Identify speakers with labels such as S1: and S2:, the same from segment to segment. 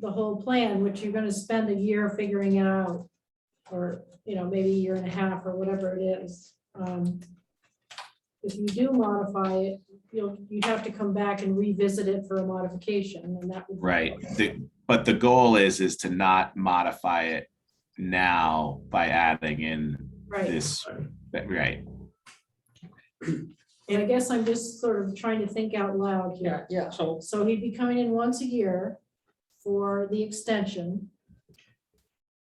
S1: the whole plan, which you're gonna spend a year figuring it out. Or, you know, maybe a year and a half or whatever it is. Um, If you do modify it, you'll, you have to come back and revisit it for a modification and that would.
S2: Right, The- but the goal is, is to not modify it now by adding in
S1: Right,
S2: this, that- right,
S1: and I guess I'm just sort of trying to think out loud here.
S3: Yeah, yeah, so
S1: So he'd be coming in once a year for the extension.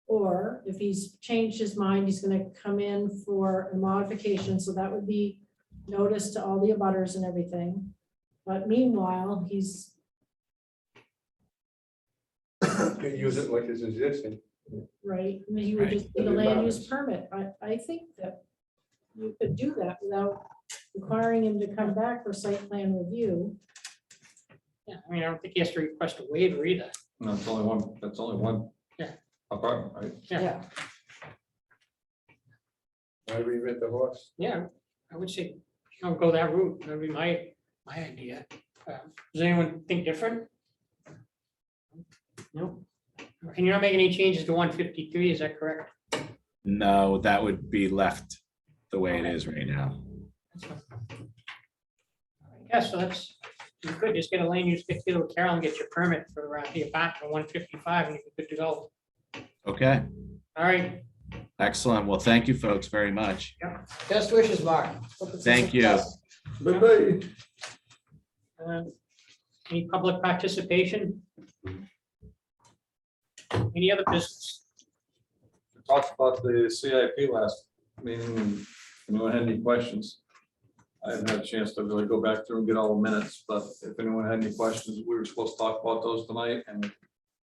S1: Or if he's changed his mind, he's gonna come in for a modification, so that would be notice to all the abutters and everything. But meanwhile, he's,
S4: You Use it like it's existing.
S1: right, and he would
S2: Right.
S1: just need a land use permit. I, I think that you could do that without requiring him to come back for site plan review.
S3: yeah, I mean, I don't think he has to request a waiver either.
S4: No, it's only one, that's only one.
S3: Yeah.
S4: Apartment, right?
S3: Yeah,
S4: I reinvent the horse.
S3: yeah, I would say, don't go that route. That'd be my, my idea. Uh, Does anyone think different? No? And you're not making any changes to one fifty-three, is that correct?
S2: no, that would be left the way it is right now.
S3: Yeah, so that's, you could just get a lane, use get to Carol and get your permit for around the apartment one fifty-five and you're good to go.
S2: Okay,
S3: All right,
S2: excellent, well, thank you folks very much.
S5: Best wishes, Mark. Hope it's a
S2: Thank you.
S5: success.
S4: Bye-bye.
S3: uh, any public participation? Any other business?
S4: Talked about the CIP last meeting. Anyone had any questions? I haven't had a chance to really go back through and get all the minutes, but if anyone had any questions, we were supposed to talk about those tonight and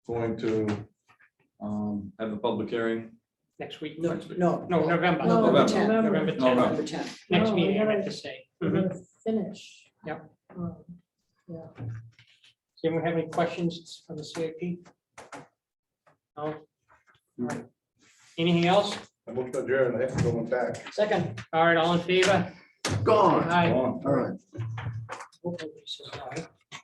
S4: going to um, have a public hearing.
S3: Next week?
S5: No, no.
S3: No, November.
S5: No, November
S4: November.
S5: 10th.
S3: November
S4: No, no.
S3: tenth,
S5: November 10th.
S3: next
S1: No,
S3: meeting, I
S1: we
S3: meant
S1: gotta-
S3: to say.
S1: We're
S3: Mhm.
S1: gonna Finish.
S3: Yep.
S1: Um, Yeah.
S3: Does anyone Mm-hmm. have any questions from the CIP? No? All right. Anything else?
S4: I'm looking at Jared, I have to go back.
S5: Second.
S3: All right, all in favor?
S4: Gone.
S3: Aye.
S4: Gone.
S5: All right.
S3: Hopefully, this is all right.